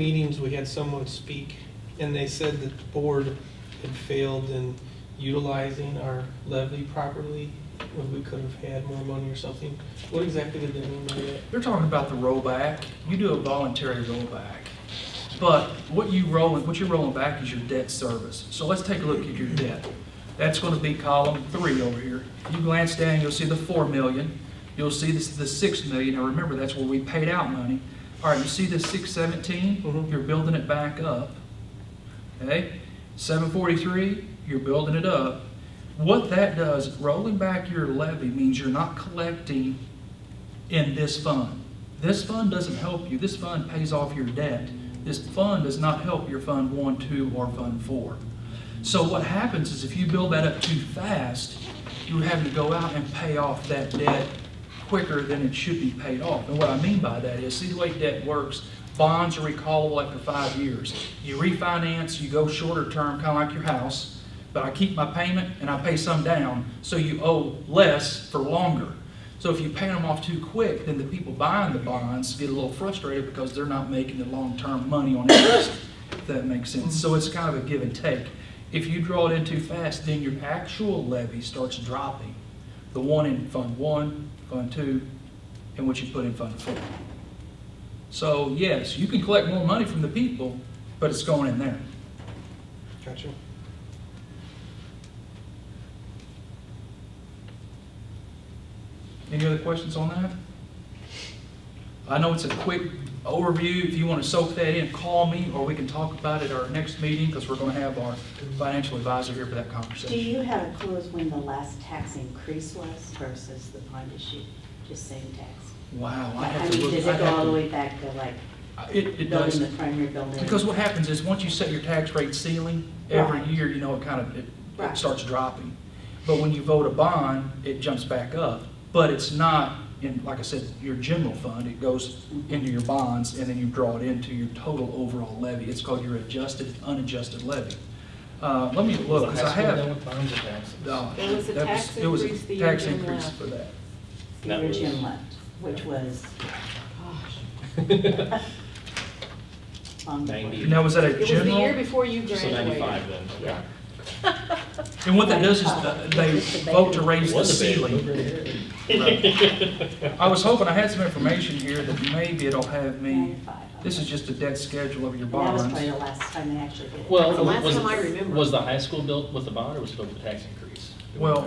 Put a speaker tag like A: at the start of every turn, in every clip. A: meetings, we had someone speak, and they said that the board had failed in utilizing our levy properly, when we could have had more money or something. What exactly did they mean by that?
B: They're talking about the rollback. You do a voluntary rollback. But what you rolling, what you're rolling back is your debt service. So let's take a look at your debt. That's gonna be column three over here. You glance down, you'll see the four million. You'll see this, the six million. Now remember, that's where we paid out money. All right, you see the six seventeen?
A: Mhm.
B: You're building it back up. Okay? Seven forty-three, you're building it up. What that does, rolling back your levy means you're not collecting in this fund. This fund doesn't help you. This fund pays off your debt. This fund does not help your Fund One, Two, or Fund Four. So what happens is if you build that up too fast, you're having to go out and pay off that debt quicker than it should be paid off. And what I mean by that is, see the way debt works, bonds are recallable after five years. You refinance, you go shorter term, kind of like your house, but I keep my payment and I pay some down, so you owe less for longer. So if you pay them off too quick, then the people buying the bonds get a little frustrated because they're not making the long-term money on interest, if that makes sense. So it's kind of a give and take. If you draw it in too fast, then your actual levy starts dropping. The one in Fund One, Fund Two, and what you put in Fund Four. So yes, you can collect more money from the people, but it's going in there.
A: Gotcha.
B: Any other questions on that? I know it's a quick overview. If you want to soak that in, call me, or we can talk about it at our next meeting, because we're going to have our financial advisor here for that
C: Do
B: conversation.
C: you have a clue as when the last tax increase was versus the bond issue, just saying tax?
B: Wow, I
C: I
B: have to
C: mean,
B: look.
C: does
B: I'd
C: it go
B: have
C: all
B: to-
C: the way back to like
B: It, it
C: building
B: does.
C: the primary building?
B: Because what happens is, once you set your tax rate ceiling, every
C: Right.
B: year, you know, it kind of, it it
C: Right.
B: starts dropping. But when you vote a bond, it jumps back up, but it's not in, like I said, your general fund, it goes into your bonds, and then you draw it into your total overall levy. It's called your adjusted, unadjusted levy. Uh, let me look, because I have. no,
D: There was a
B: that
D: tax
B: there was a
D: increase the year
B: tax
D: Jim
B: increase
D: left.
B: For that.
E: That
C: Your
E: was-
C: gym left, which was, gosh. long before.
E: Ninety.
B: And now, was that
D: It
B: a
D: was the year
B: general?
D: before you
E: So ninety-five
D: graduated.
E: then, okay.
B: And what that does is, uh, they vote to raise the
E: Was a baby.
B: ceiling. I was hoping, I had some information here that maybe it'll have me,
C: Ninety-five,
B: this is
C: okay.
B: just a debt schedule of your
C: And that was probably
B: bonds.
C: the last time they actually did it.
D: The
E: Well,
D: last
E: was,
D: time I remember.
E: was the high school built with the bond or was it built with the tax increase?
B: Well,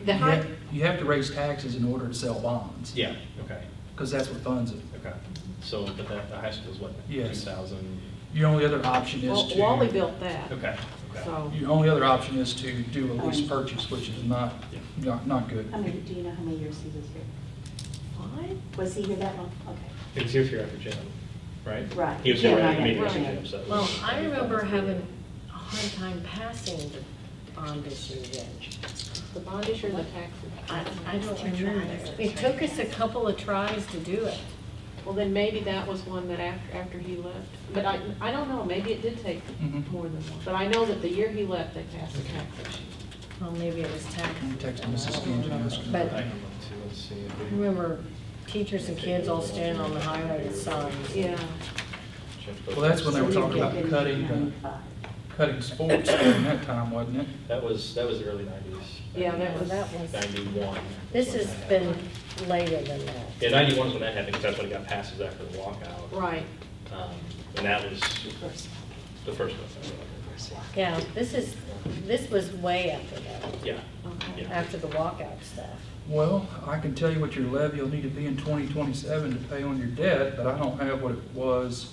B: you
D: The high,
B: have, you have to raise taxes in order to sell bonds,
E: Yeah, okay,
B: because that's what funds it.
E: okay. So, but that, the high school's what, two
B: Yes.
E: thousand?
B: Your only other option is
D: well,
B: to.
D: Wally built that,
E: Okay, okay.
D: so.
B: Your only other option is to do a
D: Um,
B: lease purchase, which is not,
E: Yeah.
B: not, not good.
C: How many, do you know how many years he was here?
D: What?
C: Was he here that long? Okay,
E: It was here for after Jim, right?
C: Right.
E: He was here
C: Yeah,
E: right
C: right,
E: after me,
D: right.
E: Jim, so. it
F: Well,
E: was-
F: I remember having a hard time passing the bond issue then.
D: The bond issue or the tax?
F: I, I don't remember. It took us a couple of tries to do it.
D: Well, then maybe that was one that after, after he left. But I, I don't know, maybe it did take
B: Mhm.
D: more than one. But I know that the year he left, they passed the tax issue.
F: Well, maybe it was tax.
B: Can you text Mrs. Ganji and ask her?
F: But
E: I can look too, let's see if
F: I
E: we-
F: remember teachers and kids all standing on the highlighted signs.
D: Yeah.
B: Well, that's when they
C: so
B: were
C: we
B: talking
C: did
B: about
C: get into
B: cutting, the-
C: ninety-five.
B: cutting sports during that time, wasn't it?
E: That was, that was the early nineties.
D: Yeah,
F: That was, that was,
E: Ninety-one.
F: this has been later than that.
E: Yeah, ninety-one is when that happened, because that's when it got passes after the walkout.
D: Right.
E: Um, And that was
C: First.
E: the first one.
F: Yeah, this is, this was way after that,
E: Yeah,
D: Okay.
E: yeah.
F: after the walkout stuff.
B: Well, I can tell you what your levy will need to be in 2027 to pay on your debt, but I don't have what it was,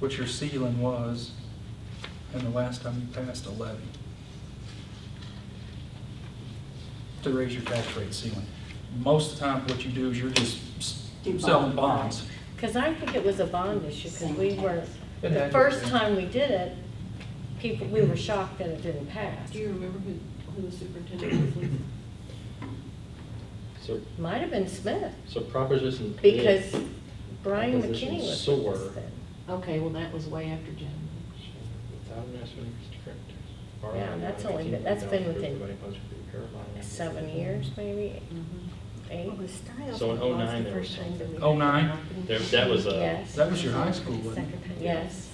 B: what your ceiling was, and the last time you passed a levy. To raise your tax rate ceiling. Most of the time, what you do is you're just s-
C: Do
B: selling
C: bond.
B: bonds.
F: Because I think it was a bond issue, because we weren't,
B: It had
F: the
B: to
F: first
B: be.
F: time we did it, people, we were shocked that it didn't pass.
D: Do you remember who, who the superintendent was? Lisa?
E: So,
F: Might have been Smith,
E: so proposition. A-
F: because Brian
E: Opposition
F: McKinney was
E: sore.
F: with us then.
D: Okay, well, that was way after Jim.
E: Without master interest correctors.
F: Yeah, that's only been- that's been within seven years maybe,
D: Mhm.
F: eight?
G: Well, the Stiles
E: So in
G: one was
E: 09
G: the
E: there
G: first
E: was
G: time that we.
B: 09?
G: had an open-
E: There- that was, uh,
F: Yes.
B: That was your high school, wasn't it?
G: Second time.
F: Yes.